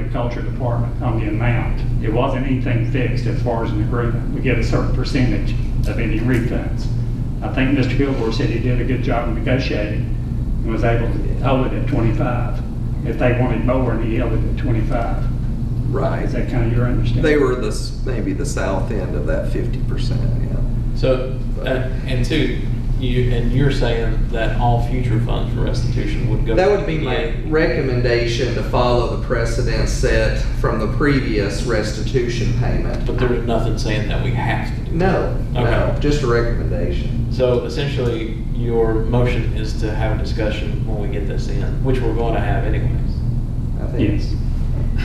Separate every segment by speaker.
Speaker 1: Agriculture Department on the amount. It wasn't anything fixed as far as an agreement. We get a certain percentage of any refunds. I think Mr. Gilmore said he did a good job of negotiating and was able to hold it at 25. If they wanted more, he held it at 25. Is
Speaker 2: Right.
Speaker 1: that kind of your understanding?
Speaker 2: They were the, s- maybe the south end of that fifty percent, yeah.
Speaker 3: So, uh, and two, you, and you're saying that all future funds for restitution would go.
Speaker 2: That
Speaker 3: to
Speaker 2: would be my
Speaker 3: EPA.
Speaker 2: recommendation to follow the precedent set from the previous restitution
Speaker 3: But
Speaker 2: payment.
Speaker 3: there was nothing saying that we have to do. that.
Speaker 2: No, no,
Speaker 3: Okay.
Speaker 2: just a recommendation.
Speaker 3: So essentially, your motion is to have a discussion when we get this in, which we're going to have anyways.
Speaker 2: I think.
Speaker 1: Yes.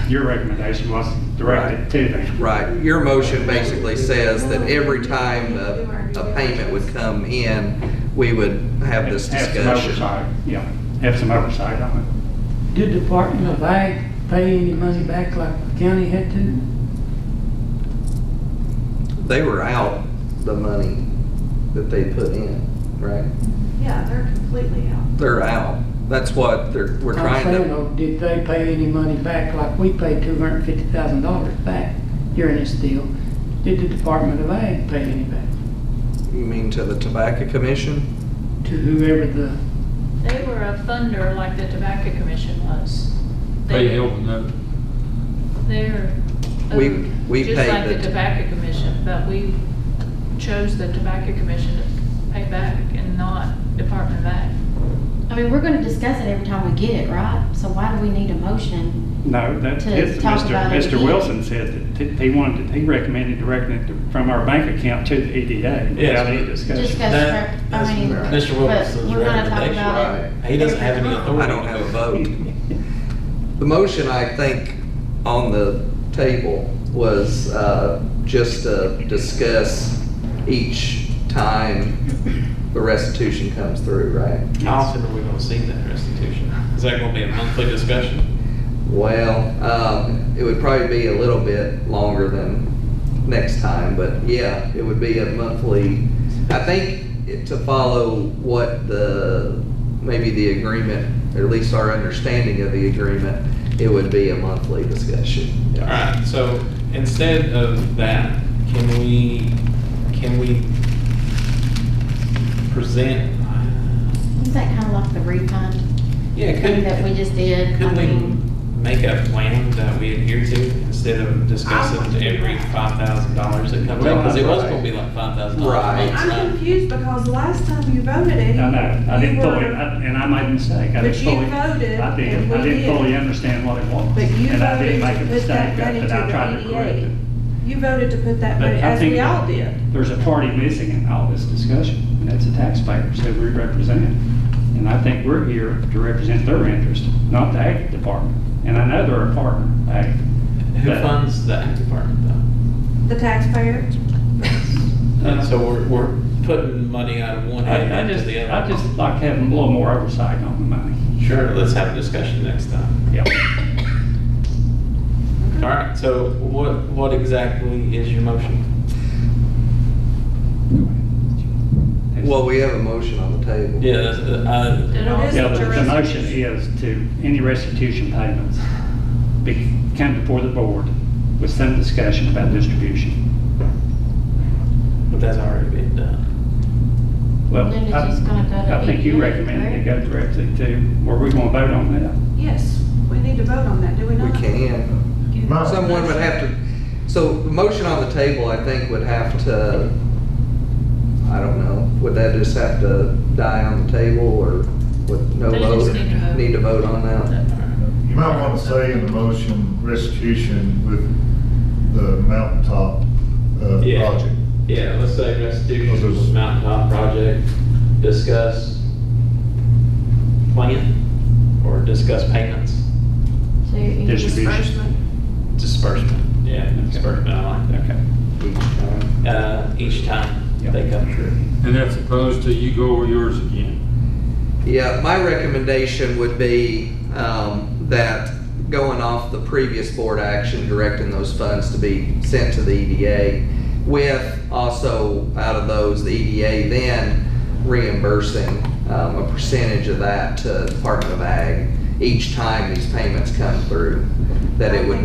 Speaker 1: Your recommendation was directed to them.
Speaker 2: Right, your motion basically says that every time a, a payment would come in, we would have this
Speaker 1: Have some
Speaker 2: discussion.
Speaker 1: oversight, yeah. Have some oversight on it.
Speaker 4: Did Department of Ag pay any money back like the county had to?
Speaker 2: They were out the money that they put in, right?
Speaker 5: Yeah, they're completely out.
Speaker 2: They're out. That's what they're, we're trying
Speaker 4: I'm saying,
Speaker 2: to,
Speaker 4: though, did they pay any money back like we paid two hundred and fifty thousand dollars back during this deal? Did the Department of Ag pay any back
Speaker 2: you mean to the Tobacco Commission?
Speaker 4: to whoever the,
Speaker 6: They were a funder like the Tobacco Commission was.
Speaker 7: They held a note.
Speaker 6: They're.
Speaker 2: We-
Speaker 6: owed,
Speaker 2: we paid
Speaker 6: Just like
Speaker 2: the-
Speaker 6: the Tobacco Commission, but we chose the Tobacco Commission to pay back and not Department of Ag.
Speaker 8: I mean, we're gonna discuss it every time we get it, right? So why do we need a motion?
Speaker 1: No, that's,
Speaker 8: To
Speaker 1: it's-
Speaker 8: talk
Speaker 1: Mr.
Speaker 8: about it
Speaker 1: Mr.
Speaker 8: again.
Speaker 1: Wilson said that he wanted, to- he recommended directing it to- from our bank account to the EDA without any
Speaker 8: Just
Speaker 1: discussion.
Speaker 8: go
Speaker 3: That-
Speaker 8: straight, I mean,
Speaker 2: that's
Speaker 8: but
Speaker 3: Mr. Wilkinson's
Speaker 8: we're gonna talk
Speaker 3: recommendation.
Speaker 8: about it.
Speaker 3: He doesn't have any
Speaker 8: every time.
Speaker 3: authority.
Speaker 2: I don't have a vote. The motion, I think, on the table was uh, just to discuss each time the restitution comes through, right?
Speaker 3: How often are we going to see that restitution? Is that going to be a monthly discussion?
Speaker 2: Well, um, it would probably be a little bit longer than next time, but yeah, it would be a monthly. I think it- to follow what the, maybe the agreement, or at least our understanding of the agreement, it would be a monthly discussion.
Speaker 3: All right, so instead of that, can we, can we present?
Speaker 8: Is that kind of like the refund
Speaker 3: Yeah,
Speaker 8: thing
Speaker 3: could,
Speaker 8: that we just did? I
Speaker 3: could we
Speaker 8: mean,
Speaker 3: make a plan that we adhere to instead of discussing every five thousand dollars that comes up? Because it was going to be like five thousand
Speaker 2: Right.
Speaker 3: dollars.
Speaker 5: I'm confused because last time you voted, Eddie.
Speaker 1: I know, I didn't
Speaker 5: you
Speaker 1: fully,
Speaker 5: were-
Speaker 1: I- and I made a mistake. I
Speaker 5: But
Speaker 1: didn't
Speaker 5: you
Speaker 1: fully-
Speaker 5: voted
Speaker 1: I did,
Speaker 5: and
Speaker 1: I
Speaker 5: we
Speaker 1: didn't
Speaker 5: did.
Speaker 1: fully understand what it was.
Speaker 5: But you
Speaker 1: And I did
Speaker 5: voted
Speaker 1: make a
Speaker 5: to put
Speaker 1: mistake
Speaker 5: that
Speaker 1: of
Speaker 5: money
Speaker 1: it,
Speaker 5: to
Speaker 1: I tried to
Speaker 5: the E
Speaker 1: correct it.
Speaker 5: EDA. You voted to put that
Speaker 1: But
Speaker 5: money,
Speaker 1: I
Speaker 5: as
Speaker 1: think
Speaker 5: we all
Speaker 1: that
Speaker 5: did.
Speaker 1: There's a party missing in all this discussion, and that's the taxpayers who we represent. And I think we're here to represent their interest, not the ag department. And I know they're a partner, ag.
Speaker 3: Who funds the ag department though?
Speaker 5: The taxpayer?
Speaker 3: And so we're, we're putting money out of one hand
Speaker 1: I I
Speaker 3: into
Speaker 1: just,
Speaker 3: the
Speaker 1: I
Speaker 3: other.
Speaker 1: just like having a little more oversight on the money.
Speaker 3: Sure, let's have a discussion next time.
Speaker 1: Yeah.
Speaker 3: All right, so what, what exactly is your motion?
Speaker 2: Well, we have a motion on the table.
Speaker 3: Yeah, that's, uh,
Speaker 6: It all-
Speaker 5: It is
Speaker 1: Yeah, the the
Speaker 5: what the
Speaker 1: motion
Speaker 5: restitution-
Speaker 1: is to, any restitution payments be, come before the board with some discussion about distribution.
Speaker 3: but that's already been done.
Speaker 1: Well,
Speaker 8: Then it's
Speaker 1: I-
Speaker 8: just gonna go to
Speaker 1: I think you
Speaker 8: EDA,
Speaker 1: recommended it
Speaker 8: right?
Speaker 1: go directly to, where we gonna vote on that.
Speaker 5: Yes, we need to vote on that, do we
Speaker 2: We
Speaker 5: not?
Speaker 2: can.
Speaker 5: can.
Speaker 2: Someone would have to, so the motion on the table, I think, would have to, I don't know, would that just have to die on the table or with no
Speaker 6: They just
Speaker 2: vote?
Speaker 6: need to vote.
Speaker 2: Need to vote on that?
Speaker 9: You might want to say in the motion restitution with the mountaintop uh,
Speaker 3: Yeah.
Speaker 9: project.
Speaker 3: Yeah, let's say restitution
Speaker 9: was
Speaker 3: mountaintop project, discuss plan or discuss payments,
Speaker 8: so you-
Speaker 1: Distribution.
Speaker 3: disbursement. Yeah, disbursement, I like that.
Speaker 1: Okay.
Speaker 2: Each time.
Speaker 3: Uh, each time they come through.
Speaker 7: And that's opposed to you go over yours again.
Speaker 2: Yeah, my recommendation would be um, that going off the previous board action, directing those funds to be sent to the EDA, with also out of those, the EDA then reimbursing um, a percentage of that to Department of Ag each time these payments come through, that it would